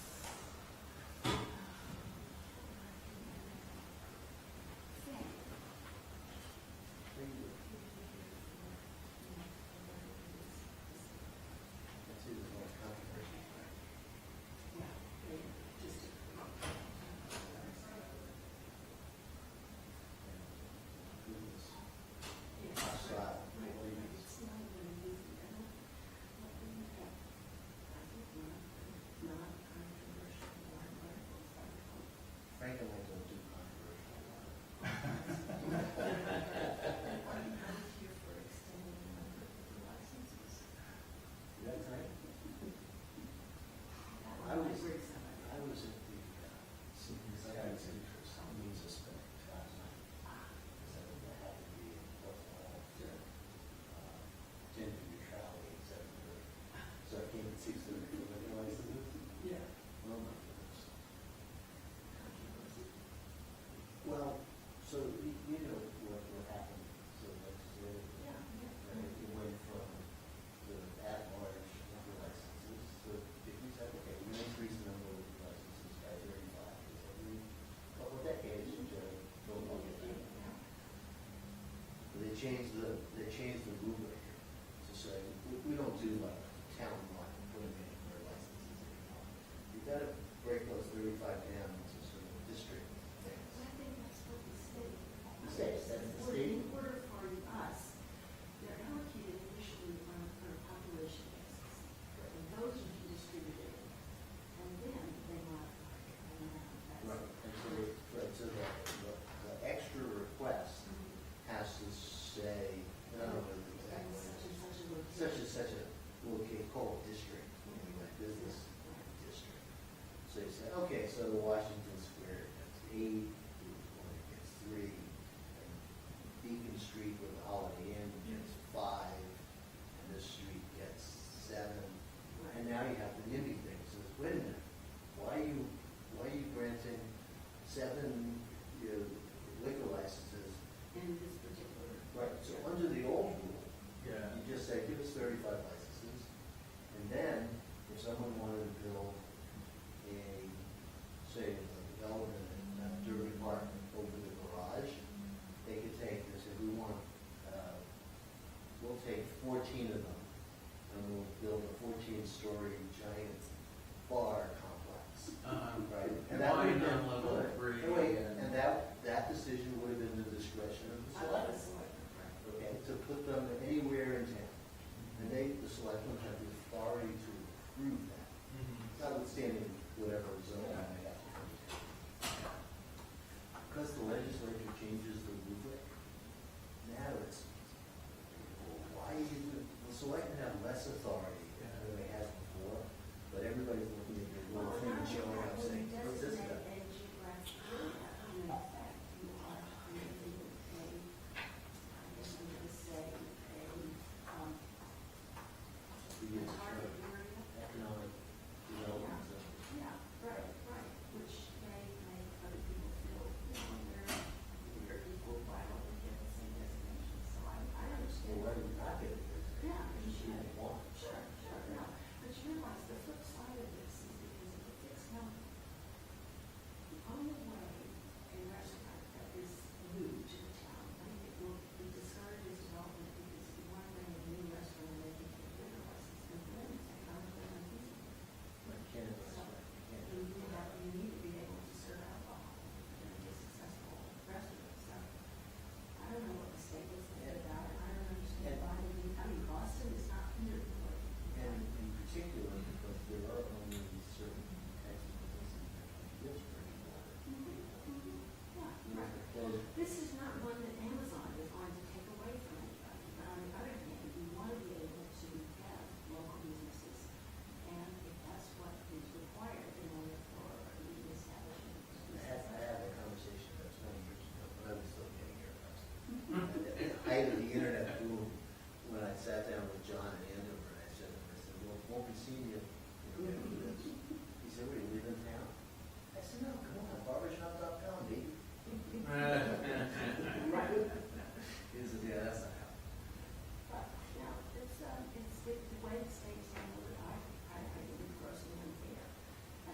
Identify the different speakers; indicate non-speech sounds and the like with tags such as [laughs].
Speaker 1: thirty-five down, it's a sort of district thing.
Speaker 2: I think that's what the state.
Speaker 1: The state says the
Speaker 2: Well,
Speaker 1: state-
Speaker 2: In order for us, they're allocated initially on on a population basis. And those are distributed, and then they modify. it. And that's-
Speaker 1: Right, and so, the- right, so the, the, the extra request has to say, I don't know the exact language.
Speaker 2: And such and such a location.
Speaker 1: such and such a, we'll get called district, you know, like business district. So you say, okay, so Washington Square gets eight, Dearborn gets three, and Beacon Street with Holiday Inn gets five, and this street gets seven. And now you have the NIMBY thing, so it's, wait a minute, why are you, why are you granting seven, you know, liquor licenses?
Speaker 2: In this particular.
Speaker 1: Right, so under the old rule,
Speaker 3: Yeah.
Speaker 1: you just say, give us thirty-five licenses, and then if someone wanted to build a, say, a development in uh, Derby Park over the garage, they could take this, if we want, uh, we'll take fourteen of them, and we'll build a fourteen-story giant bar complex.
Speaker 3: Um,
Speaker 1: Right, and that would have
Speaker 3: Wine on
Speaker 1: been,
Speaker 3: level
Speaker 1: good.
Speaker 3: three.
Speaker 1: And wait, and that, that decision would have been the discretion of the
Speaker 2: I love
Speaker 1: selectmen
Speaker 2: this one.
Speaker 1: okay, to put them anywhere in town. And they, the selectmen have the authority to approve that,
Speaker 3: Mhm.
Speaker 1: notwithstanding whatever zoning they have. Because the legislature changes the rubric, now it's, why is it, the selectmen have less authority [laughs]
Speaker 2: uh, um,